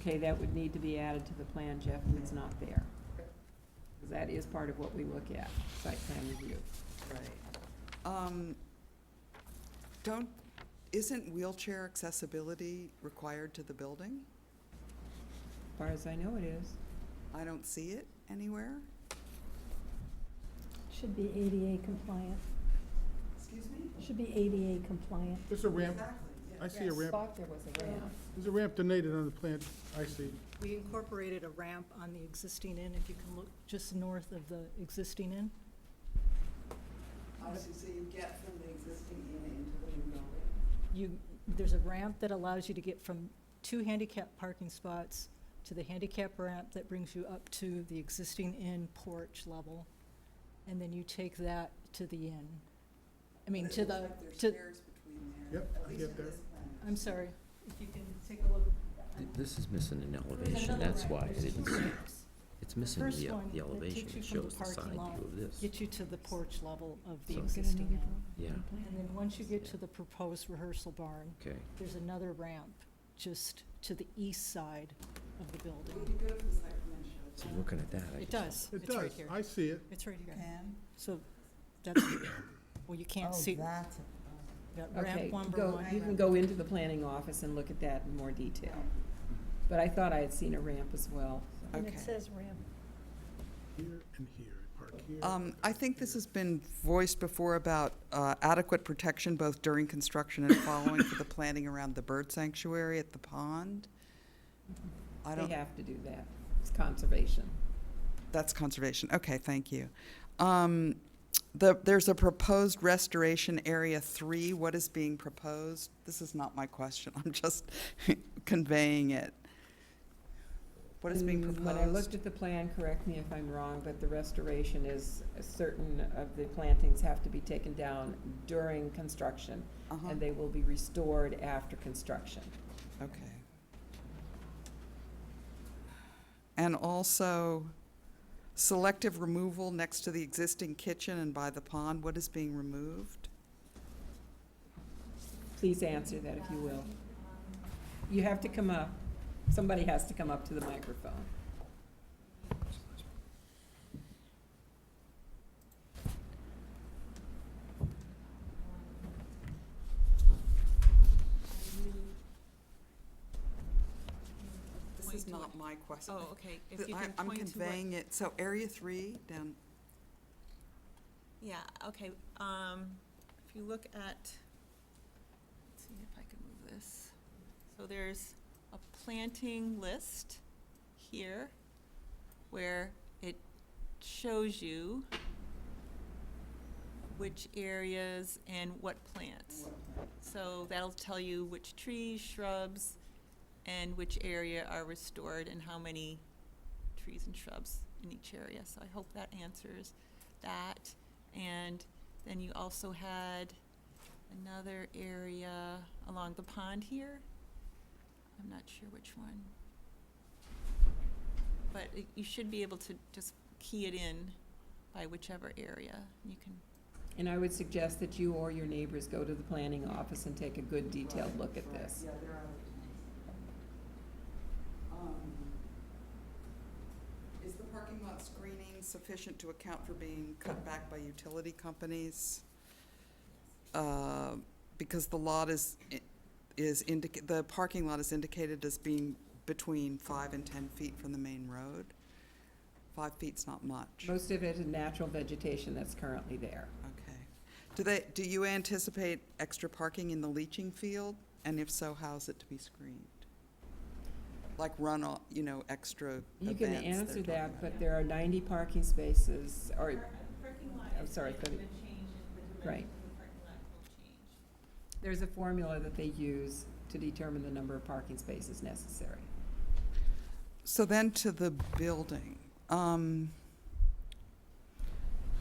okay, that would need to be added to the plan, Jeff, and it's not there. Because that is part of what we look at, site plan review. Right. Um, Don't, isn't wheelchair accessibility required to the building? As far as I know, it is. I don't see it anywhere. Should be ADA compliant, Excuse me? should be ADA compliant. There's a ramp, Exactly, yeah. I see a ramp, Thought there was a ramp. there's a ramp donated on the plant, I see. We incorporated a ramp on the existing inn, if you can look just north of the existing inn. Obviously, so you get from the existing inn into the new building. You, there's a ramp that allows you to get from two handicap parking spots to the handicap ramp that brings you up to the existing inn porch level. And then you take that to the inn. I mean, It to looks the, like there's to, stairs between there. Yep, at I least get in there. this plan. I'm sorry, if you can take a look. Th- This is missing an elevation, that's why I didn't see it. It's missing first the, uh, one the that elevation, takes you it from the shows the parking side lot, view of this. Get you to the porch level of the So- existing inn. Yeah, And then once you get to the proposed rehearsal barn, okay. there's another ramp just to the east side of the Would building. you go to the site plan show? So looking at that, I It does, just. It it's right does, here. I see it. It's right here. Pan? So that's, well, you can't see, that's. that Okay, ramp number go, one. you can go into the planning office and look at that in more detail. But I thought I had seen a ramp as well. And Okay. it says ramp. Here and here, park here. Um, I think this has been voiced before about uh, adequate protection both during construction and following for the planting around the bird sanctuary at the pond. I They don't, have to do that. It's conservation. that's conservation. Okay, thank you. Um, the, there's a proposed restoration area three. What is being proposed? This is not my question. I'm just conveying it. What is being Mm, When I looked proposed? at the plan, correct me if I'm wrong, but the restoration is certain of the plantings have to be taken down during construction, Uh-huh, and they will be restored after construction. okay. And also selective removal next to the existing kitchen and by the pond. What is being removed? Please answer that if you will. You have to come up, somebody has to come up to the microphone. This is not my question. Oh, okay, if Th- you I- can I'm point to what, conveying it, so Area 3 down, yeah, okay, um, if you look at, let's see if I can move this. So there's a planting list here where it shows you which areas and what plants. So that'll tell you which trees, shrubs, and which area are restored and how many trees and shrubs in each area. So I hope that answers that. And then you also had another area along the pond here. I'm not sure which one. But it- you should be able to just key it in by whichever area. You can, And I would suggest that you or your neighbors go to the planning office and take a good detailed look at this. Yeah, they're out of town. Um, Is the parking lot screening sufficient to account for being cut back by utility companies? Uh, Because the lot is, is indica, the parking lot is indicated as being between five and 10 feet from the main road. Five feet's not much. Most of it is natural vegetation that's currently there. Okay. Do they, do you anticipate extra parking in the leaching field? And if so, how's it to be screened? Like run runoff, you know, extra You can events they're answer talking that, about. but there are 90 parking spaces, or Parking lot I'm is sorry, not Cody. change the Right. dimensions parking lot will change. there's a formula that they use to determine the number of parking spaces necessary. So then to the building. Um,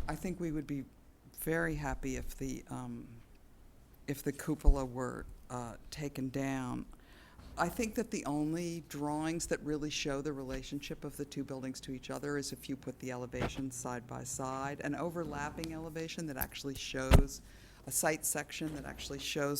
I think we would be very happy if the, um, if the cupola were uh, taken down. I think that the only drawings that really show the relationship of the two buildings to each other is if you put the elevations side by side, an overlapping elevation that actually shows, a site section that actually shows